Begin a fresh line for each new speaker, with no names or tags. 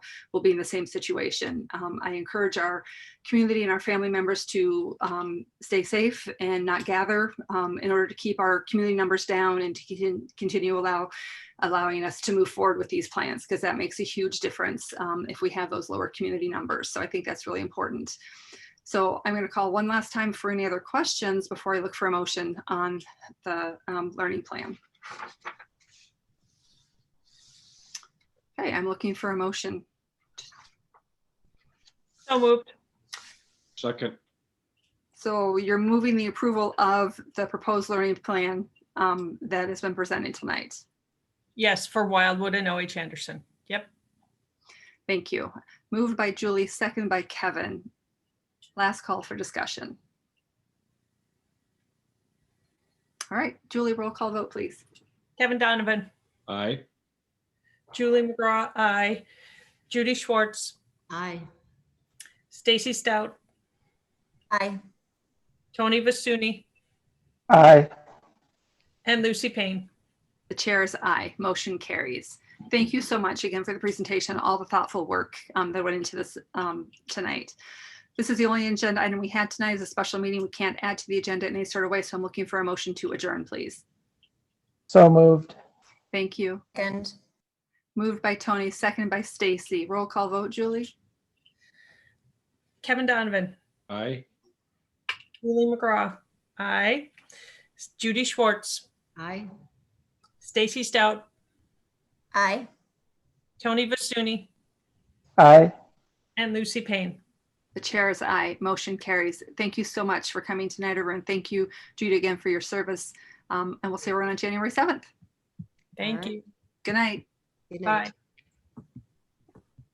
will be in the same situation. Um, I encourage our community and our family members to um, stay safe and not gather um, in order to keep our community numbers down and to con- continue allow, allowing us to move forward with these plans because that makes a huge difference um, if we have those lower community numbers. So I think that's really important. So I'm going to call one last time for any other questions before I look for a motion on the um, learning plan. Okay, I'm looking for a motion.
So moved.
Second,
So you're moving the approval of the proposed learning plan um, that has been presented tonight.
Yes, for Wildwood and OH Anderson. Yep.
Thank you. Moved by Julie, second by Kevin. Last call for discussion. All right, Julie, roll call vote, please.
Kevin Donovan,
aye.
Julie McGraw, I, Judy Schwartz,
Aye.
Stacy Stout,
Aye.
Tony Vasuny,
Aye.
and Lucy Payne.
The chair is aye. Motion carries. Thank you so much again for the presentation, all the thoughtful work um, that went into this um, tonight. This is the only agenda item we had tonight is a special meeting. We can't add to the agenda in any sort of way, so I'm looking for a motion to adjourn, please.
So moved.
Thank you.
Second.
Moved by Tony, second by Stacy. Roll call vote, Julie?
Kevin Donovan,
Aye.
Julie McGraw, I, Judy Schwartz,
Aye.
Stacy Stout,
Aye.
Tony Vasuny,
Aye.
and Lucy Payne.
The chair is aye. Motion carries. Thank you so much for coming tonight, everyone. Thank you, Judy, again for your service. Um, And we'll see everyone on January 7th.
Thank
Alright.
you.
Good night.
Good
Bye.
night.